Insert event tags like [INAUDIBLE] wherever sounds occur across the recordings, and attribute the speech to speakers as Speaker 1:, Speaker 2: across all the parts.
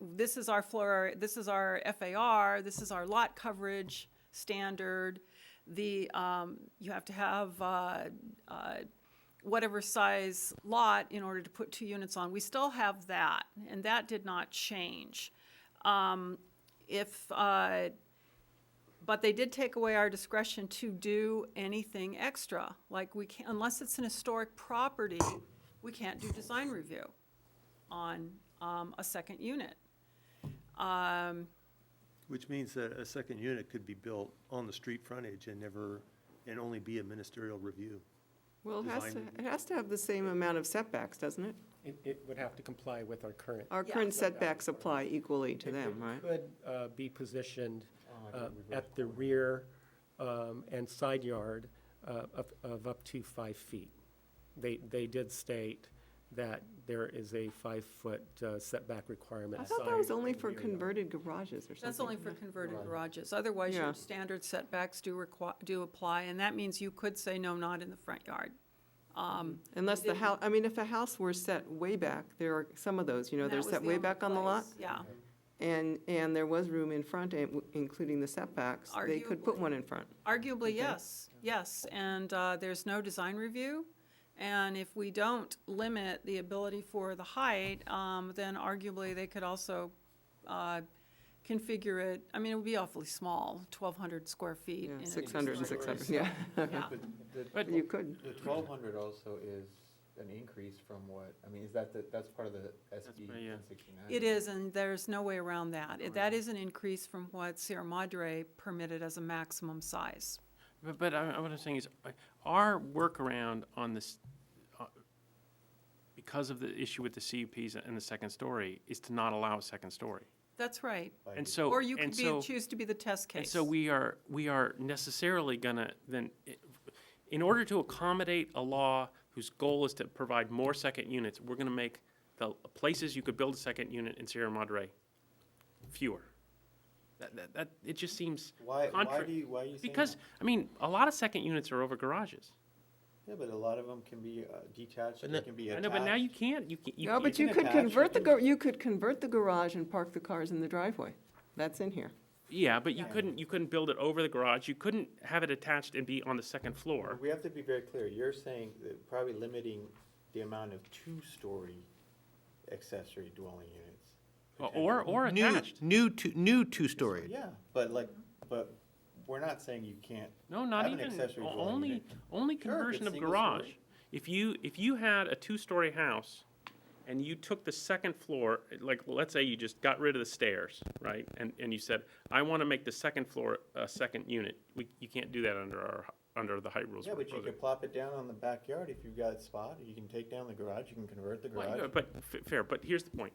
Speaker 1: this is our floor, this is our FAR, this is our lot coverage standard. The, um, you have to have, uh, uh, whatever size lot in order to put two units on. We still have that, and that did not change. Um, if, uh, but they did take away our discretion to do anything extra. Like we can, not unless it's an historic property, we can't do design review on, um, a second unit. Um,
Speaker 2: Which means that a second unit could be built on the street frontage and never, and only be a ministerial review.
Speaker 3: Well, it has to,
Speaker 2: Design
Speaker 3: it has to have the same amount of setbacks, doesn't it?
Speaker 4: It, it would have to comply with our current.
Speaker 3: Our
Speaker 1: Yeah.
Speaker 3: current setbacks apply equally to them, right? Oh,
Speaker 4: It Could uh, be positioned uh, at the rear um, and side yard uh, of, of up to five feet. They, they did state that there is a five-foot uh, setback requirement.
Speaker 3: I thought that
Speaker 4: side
Speaker 3: was only
Speaker 4: and
Speaker 3: for
Speaker 4: rear yard.
Speaker 3: converted garages or something.
Speaker 1: That's only for converted garages. Otherwise,
Speaker 3: Yeah.
Speaker 1: your standard setbacks do require, do apply, and that means you could say no, not in the front yard.
Speaker 3: Unless the house, I mean, if a house were set way back, there are some of those, you know,
Speaker 1: And that
Speaker 3: they're
Speaker 1: was
Speaker 3: set
Speaker 1: the
Speaker 3: way
Speaker 1: only
Speaker 3: back on the lot.
Speaker 1: place, Yeah.
Speaker 3: And, and there was room in front, and w- including the setbacks, they could put
Speaker 1: Arguably.
Speaker 3: one in front.
Speaker 1: Arguably, yes, yes, and uh, there's no design review, and if we don't limit the ability for the height, um, then arguably, they could also uh, configure it, I mean, it would be awfully small, 1,200 square feet.
Speaker 3: Yeah,
Speaker 1: in a
Speaker 3: 600 and
Speaker 1: two-story.
Speaker 3: 600, [LAUGHS] yeah.
Speaker 1: Yeah.
Speaker 5: The
Speaker 3: But you could.
Speaker 5: twelve hundred also is an increase from what, I mean, is that, the- that's part of the SB
Speaker 4: pretty, yeah.
Speaker 5: one sixty-nine?
Speaker 1: It is, and there's no way around that. It- That is an increase from what Sierra Madre permitted as a maximum size.
Speaker 6: But, but I, I- what I'm saying is, uh, our workaround on this, uh, because of the issue with the CUPs and the second story, is to not allow a second story.
Speaker 1: That's right.
Speaker 6: And so,
Speaker 1: Or you
Speaker 6: Oh, and
Speaker 1: could be,
Speaker 6: so-
Speaker 1: choose to be the test case.
Speaker 6: And so we are, we are necessarily gonna, then, i- in order to accommodate a law whose goal is to provide more second units, we're gonna make the places you could build a second unit in Sierra Madre fewer. That, that, that, it just seems
Speaker 5: Why, why
Speaker 6: contra-
Speaker 5: do you, why are you saying?
Speaker 6: Because,
Speaker 5: that?
Speaker 6: I mean, a lot of second units are over garages.
Speaker 5: Yeah, but a lot of them can be uh, detached, they can be
Speaker 6: I
Speaker 5: attached.
Speaker 6: know, but now you can't, you can't. you
Speaker 3: No,
Speaker 6: can't-
Speaker 3: but you
Speaker 5: can
Speaker 3: could
Speaker 5: attach, you
Speaker 3: convert the,
Speaker 5: can-
Speaker 3: gar- you could convert the garage and park the cars in the driveway. That's in here.
Speaker 6: Yeah, but you couldn't, you couldn't build it over the garage, you couldn't have it attached and be on the second floor.
Speaker 5: We have to be very clear, you're saying that probably limiting the amount of two-story accessory dwelling units.
Speaker 6: Or, or
Speaker 7: New,
Speaker 6: attached.
Speaker 7: new, two- new two-story.
Speaker 5: Yeah, but like, but we're not saying you can't.
Speaker 6: No, not
Speaker 5: have an
Speaker 6: even,
Speaker 5: accessory
Speaker 6: o-
Speaker 5: dwelling
Speaker 6: only,
Speaker 5: unit.
Speaker 6: only
Speaker 5: Sure, if
Speaker 6: conversion
Speaker 5: it's
Speaker 6: of
Speaker 5: single
Speaker 6: garage.
Speaker 5: story.
Speaker 6: If you, if you had a two-story house and you took the second floor, like, let's say you just got rid of the stairs, right? And, and you said, I want to make the second floor a second unit, we, you can't do that under our, under the height rules.
Speaker 5: Yeah,
Speaker 6: we're
Speaker 5: but you
Speaker 6: proposing.
Speaker 5: could plop it down on the backyard if you've got a spot, you can take down the garage, you can convert the
Speaker 6: Well,
Speaker 5: garage.
Speaker 6: yeah, But, f- fair, but here's the point.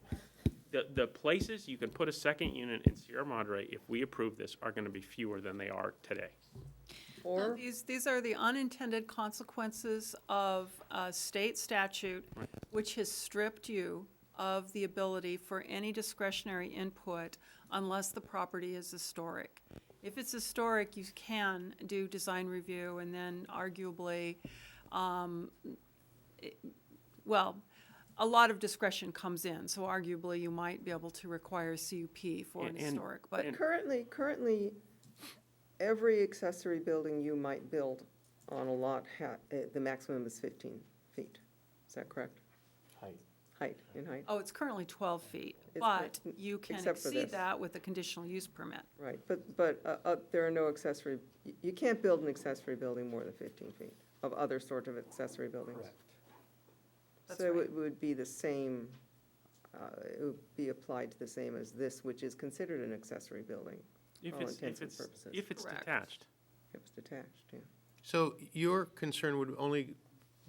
Speaker 6: The, the places you can put a second unit in Sierra Madre, if we approve this, are gonna be fewer than they are today.
Speaker 1: No,
Speaker 3: Or,
Speaker 1: These, these are the unintended consequences of a state statute, which has stripped you of the ability for any discretionary input unless the property is historic. If it's historic, you can do design review and then arguably, um, it- well, a lot of discretion comes in, so arguably you might be able to require CUP for an
Speaker 6: And- and-
Speaker 1: historic, but.
Speaker 6: and-
Speaker 3: currently, currently, every accessory building you might build on a lot, ha- uh, the maximum is 15 feet. Is that correct?
Speaker 5: Height.
Speaker 3: Height, in height?
Speaker 1: Oh, it's currently 12 feet,
Speaker 3: It's
Speaker 1: but
Speaker 3: not-
Speaker 1: you can
Speaker 3: except for
Speaker 1: exceed
Speaker 3: this.
Speaker 1: that with a conditional use permit.
Speaker 3: Right, but, but uh, uh, there are no accessory, y- you can't build an accessory building more than 15 feet of other sort of accessory buildings.
Speaker 1: That's
Speaker 3: So
Speaker 1: right.
Speaker 3: it would be the same, uh, it would be applied to the same as this, which is considered an accessory building
Speaker 6: If
Speaker 3: all
Speaker 6: it's,
Speaker 3: intents
Speaker 6: if
Speaker 3: and
Speaker 6: it's,
Speaker 3: Oh, purposes.
Speaker 6: if it's
Speaker 1: Correct.
Speaker 6: detached.
Speaker 3: if it's detached, yeah.
Speaker 7: So your concern would only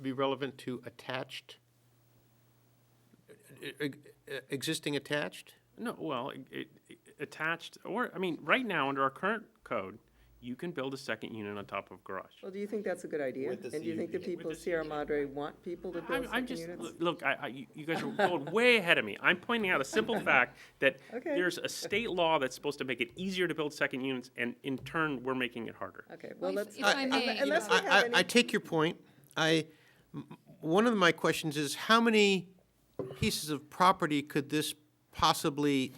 Speaker 7: be relevant to attached, e- e- e- existing attached?
Speaker 6: No, well, it- it, it, attached, or, I mean, right now, under our current code, you can build a second unit on top of garage.
Speaker 3: Well, do you think that's a good idea?
Speaker 5: With the
Speaker 3: And do you think the
Speaker 5: CUP.
Speaker 3: people
Speaker 6: With
Speaker 3: of
Speaker 6: the
Speaker 3: Sierra
Speaker 6: CUP.
Speaker 3: Madre want people to build
Speaker 6: I'm,
Speaker 3: second
Speaker 6: I'm just,
Speaker 3: units?
Speaker 6: look, I, I, you- you guys are going
Speaker 3: [LAUGHS]
Speaker 6: way ahead of me. I'm pointing out a simple fact that
Speaker 3: Okay.
Speaker 6: there's a state law that's supposed to make it easier to build second units, and in turn, we're making it harder.
Speaker 3: Okay, well,
Speaker 8: Well, if-
Speaker 3: let's.
Speaker 8: if I
Speaker 3: unle-
Speaker 8: may,
Speaker 3: Unless we
Speaker 7: I- I-
Speaker 3: have
Speaker 7: I
Speaker 3: any,
Speaker 7: take your point. I, m- one of my questions is, how many pieces of property could this possibly